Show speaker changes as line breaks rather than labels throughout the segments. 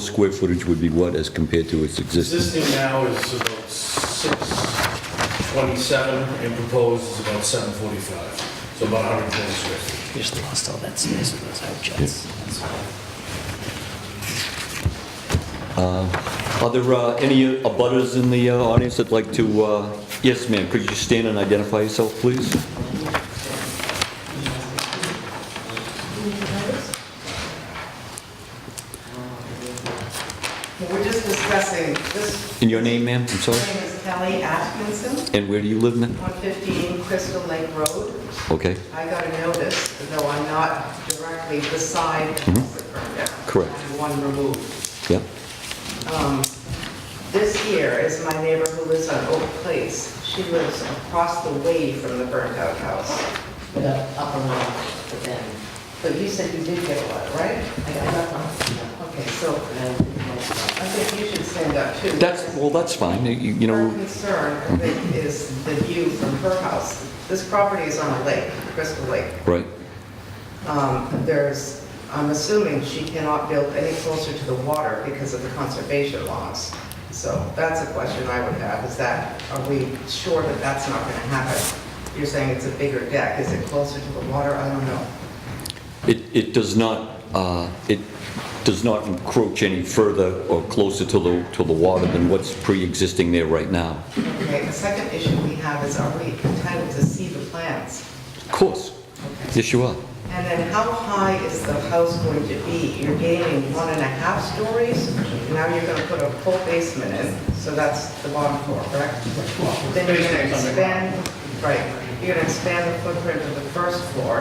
Square footage would be what as compared to its existing?
Existing now is about 627, and proposed is about 745, so about 120 square feet.
We just lost all that space with those out jets. That's all.
Are there uh, any abutters in the uh, audience that'd like to, uh, yes, ma'am, could you stand and identify yourself, please?
We're just discussing, this
And your name, ma'am, I'm sorry?
name is Kelly Atkinson,
And where do you live, ma'am?
115 Crystal Lake Road.
Okay,
I got a notice, though I'm not directly beside the permit.
Mm-hmm. Correct.
I'm one removed.
yeah,
Um, This here is my neighbor who lives on Oak Place. She lives across the way from the burnt-out house.
with an upper one, but then,
But you said you did get one, right?
I got up on,
Okay, so
and
I think you should stand up too.
that's, well, that's fine, you you
Her
know,
concern I think, is the view from her house. This property is on a lake, Crystal Lake.
right,
Um, There's, I'm assuming she cannot build any closer to the water because of the conservation laws. So that's a question I would have, is that, are we sure that that's not going to happen? You're saying it's a bigger deck, is it closer to the water? I don't know.
it, it does not, uh, it does not encroach any further or closer to the, to the water than what's pre-existing there right now.
Okay, the second issue we have is are we entitled to see the plans?
Of course, yes, you are.
And then how high is the house going to be? You're gaining one and a half stories, now you're going to put a full basement in, so that's the bottom floor, correct? Then you're going to expand, right, you're going to expand the footprint of the first floor,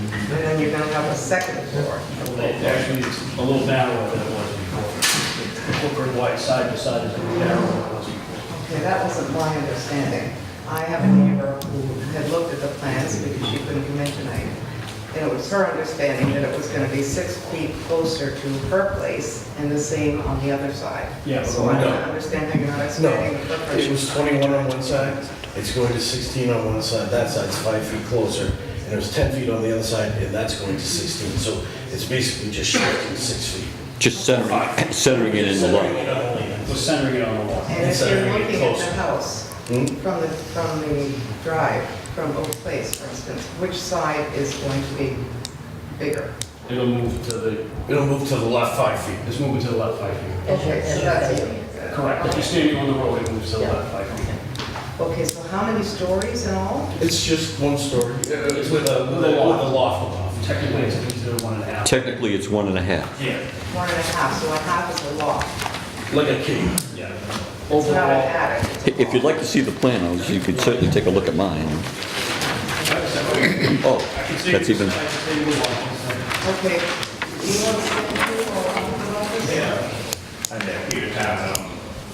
and then you're going to have a second floor.
It Actually, it's a little narrower than it was before. The Corporate wide side to side is a little narrower than it was before.
Okay, that wasn't my understanding. I have a neighbor who had looked at the plans because she couldn't come in tonight. And it was her understanding that it was going to be six feet closer to her place and the same on the other side.
Yeah, but
So I don't
no.
understand how you're not
No,
expanding the footprint.
it was 21 on one side, it's going to 16 on one side, that side's five feet closer, and it was 10 feet on the other side, and that's going to 16, so it's basically just shifting six feet.
Just centering, centering it in the
Centering
lot.
it on the land.
We're centering it on the wall.
And if
Instead of
you're
getting
looking at
closer.
the house
Hmm?
from the, from the drive, from Oak Place, for instance, which side is going to be bigger?
It'll move to the,
It'll move to the left five feet.
it's moving to the left five feet.
Okay, so that's.
Correct, if you're standing on the road, it moves to the left five feet.
Okay, so how many stories in all?
It's just one story, uh, with a, with a
With a loft.
with a loft above.
Technically, it's considered one and a half.
Technically, it's one and a half.
Yeah,
One and a half, so a half is a loft.
like a cave.
yeah.
It's not an
Overall,
attic. it's a
If you'd
loft.
like to see the plan, I was- you could certainly take a look at mine. Oh,
I can see.
that's even,
I can see the wall.
Okay. Do you want to sit here or about this?
Yeah, I'm at Peter Town,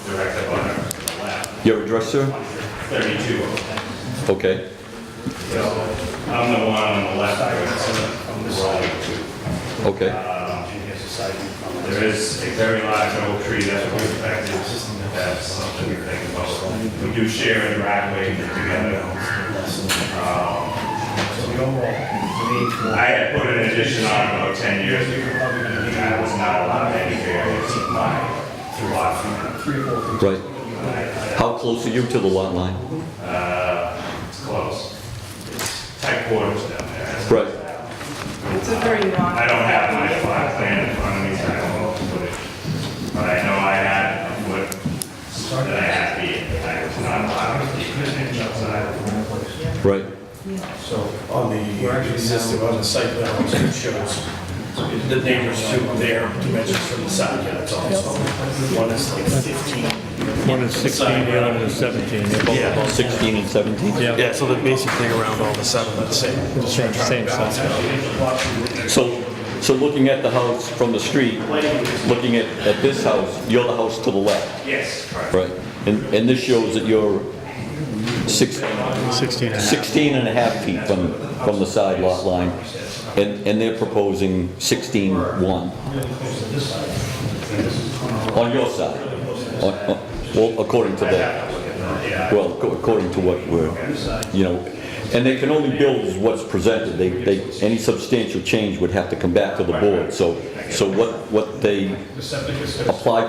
direct up on the left,
your address, sir?
32.
Okay,
So I'm the one on the left, I was from the side.
okay.
Um,
Engineer society from
There is a very large oak tree that's affected, that's something we think about. We do share a driveway together. Um, I had put an addition on about 10 years ago, and I was not allowed any variance in my lot from
Right. How close are you to the lot line?
Uh, it's close. It's tight quarters down there.
Right.
It's a very non.
I don't have my plot plan in front of me, so I don't know what to put it. But I know I had a foot that I had to be, I was not allowed to keep an inch outside.
Right,
So on the existing, on the site plan, also it shows the neighbors to their dimensions from the side, yeah, that's all. So One is like 15.
One is 16, the other is 17. They're both
Yeah.
16 and 17?
Yeah.
so that basically around all the seven, let's say.
the same, same size.
So, so looking at the house from the street, looking at, at this house, you're the house to the left,
Yes, correct.
right? And, and this shows that you're six,
16 and a half.
16 and a half feet from, from the side lot line, and, and they're proposing 16-1. On your side? On- on- Well, according to that, well, ac- according to what we're, you know, And they can only build as what's presented. They, they, any substantial change would have to come back to the board. So, so what, what they
The septic is
apply